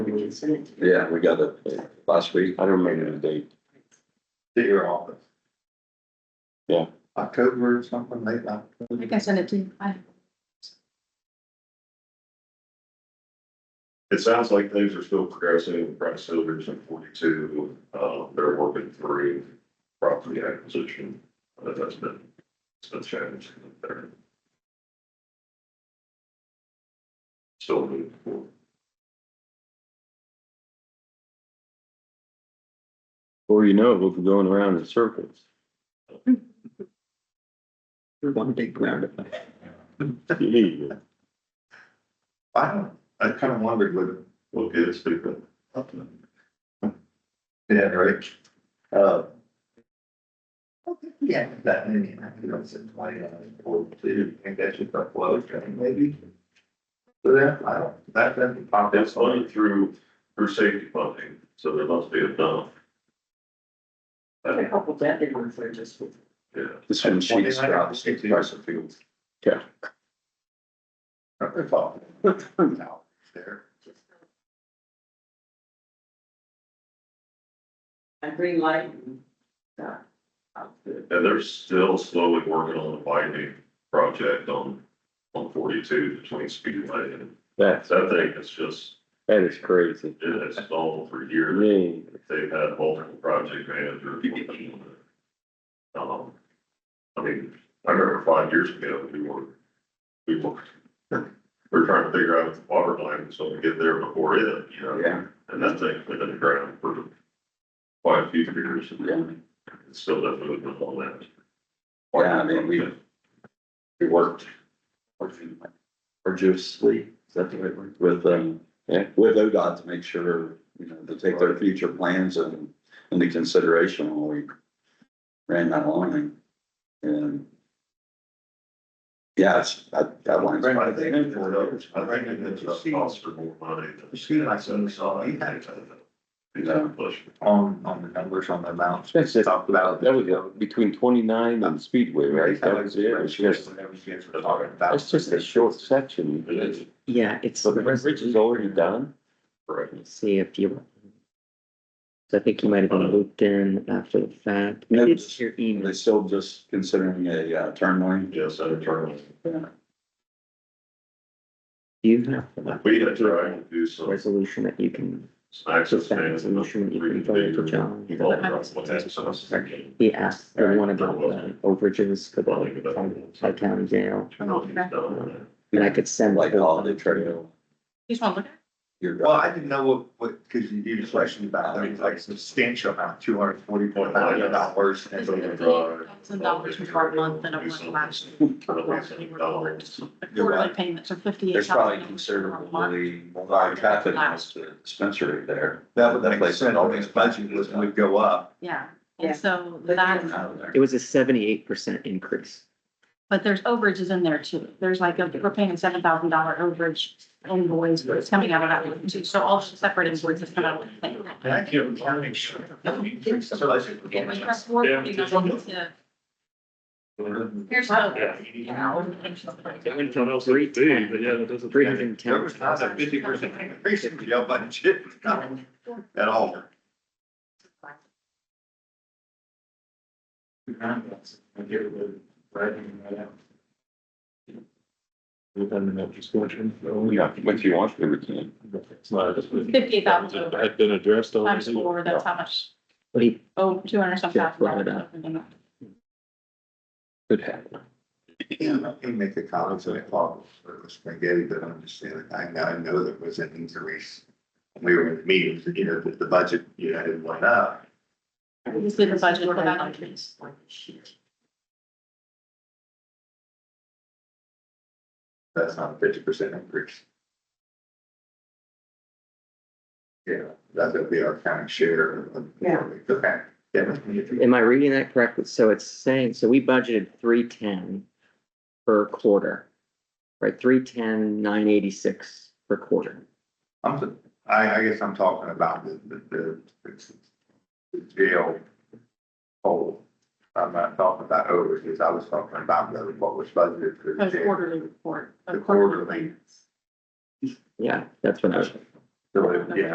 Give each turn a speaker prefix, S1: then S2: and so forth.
S1: and send it to you.
S2: Yeah, we got it last week.
S3: I don't remember the date.
S4: to your office.
S3: Yeah.
S4: October or something, late October.
S1: I think I sent it to you. I-
S5: It sounds like things are still progressing, Price Silver's in forty-two, uh, they're working through property acquisition. Uh, That's been, it's been challenging up there. Still moving forward.
S3: Before you know it, we'll be going around in circles.
S4: One big round.
S3: Yeah.
S4: I don't, I kind of wondered with,
S5: We'll get it figured out.
S4: yeah, right? Uh, Yeah, that many, I think that's in twenty, or two, I think that's just a flow, train, maybe. So yeah, I don't, that doesn't pop.
S5: It's only through, through safety funding, so there must be enough.
S1: I had A couple dead ones that are just.
S5: Yeah,
S2: This one sheets out, state price of fuel.
S4: It's all. No, it's There.
S1: A green light. and stuff.
S5: and they're still slowly working on the widening project on, on forty-two between Speedway and
S3: That's,
S5: So I think it's just,
S3: that is crazy.
S5: it's all for years.
S3: Man,
S5: They've had multiple project managers. working on it. Um, I mean, I remember five years ago, we were, we were, we were trying to figure out if the water line was gonna get there before it, you know?
S2: Yeah.
S5: And that thing's been in the ground for quite a few years. and It's still not moving with all that.
S2: Yeah, I mean, we- We worked. Arduously, is that the right word? With, um,
S3: Yeah.
S2: with ODOT to make sure, you know, to take their future plans and, into consideration when we ran that line and. Yeah, it's, that, that line's.
S4: Right,
S5: I
S4: I
S5: think,
S4: think-
S5: I think it's a cost for more money. than-
S4: You see, like, so we saw- you had-
S5: Yeah, push.
S4: On, on the numbers, on the amounts.
S3: That's it.
S4: Talked about.
S3: That was uh, between twenty-nine and Speedway, right? That was it. It's just,
S4: Whatever you guys were talking about.
S3: that's just a short section.
S5: It is.
S6: Yeah, it's,
S3: So the bridge is already done?
S5: Correct.
S6: let's see if you. So I think you might have been looped in after the fact.
S2: No,
S6: Maybe
S2: just-
S6: it's your email.
S2: They still just considering a, uh, turn lane.
S5: Yes, I turn.
S6: Do you have
S5: We had tried to do
S6: a
S5: some
S6: resolution that you can,
S5: access
S6: just that
S5: management.
S6: resolution that you can forward to John?
S5: John.
S6: He asked, they want about
S5: All right.
S6: the uh, overages for the Tri County
S5: uh,
S6: Jail. And I could send.
S2: Like holiday trail.
S1: You just want to look at it?
S2: You're
S4: Well, I didn't know what, what, cause you, you just questioned about, I mean, like substantial amount, two hundred forty-four thousand dollars.
S1: It's $58,000 per month than it was last year. Quarterly payments are fifty-eight.
S2: There's probably considerably more traffic as to the dispensary there.
S4: That would, that
S2: place
S4: place, all this budget was, would go up.
S1: Yeah,
S6: Yeah.
S1: and so
S2: Out
S1: that's,
S2: of there.
S6: It was a seventy-eight percent increase.
S1: but there's overages in there too. There's like, a we're paying a seven thousand dollar overage invoice, but it's coming out of that one too. So all separate invoices come out of the thing.
S4: Thank you.
S1: And we press forward, you know, to- Here's how. you know,
S6: Three hundred and ten.
S4: There was not a fifty percent increase in jail budget at all.
S3: What you want, we can.
S1: Fifty thousand over
S7: Had been addressed
S1: times
S7: already.
S1: four, that's how much,
S6: But he
S1: oh, two hundred some
S6: Yeah, brought it
S1: thousand.
S6: up.
S3: Could happen.
S4: Yeah, I can make a comment on it, Paul, for the spaghetti, but I'm just saying, I know, I know there was an increase. We were in the meetings, you know, that the budget, you know, it went up.
S1: This is the budget for that on trees.
S4: That's not a fifty percent increase. Yeah, that would be our county share of.
S1: Yeah.
S4: Okay. Yeah.
S6: Am I reading that correctly? So it's saying, so we budgeted three ten per quarter. Right, three ten, nine eighty-six per quarter.
S4: I'm, I, I guess I'm talking about the, the, the- the jail hole. I'm not talking about overages, I was talking about the- what was budgeted for the
S1: Those
S4: jail.
S1: quarterly report.
S4: The quarterly.
S1: payments.
S6: Yeah, that's what I was.
S4: So, yeah,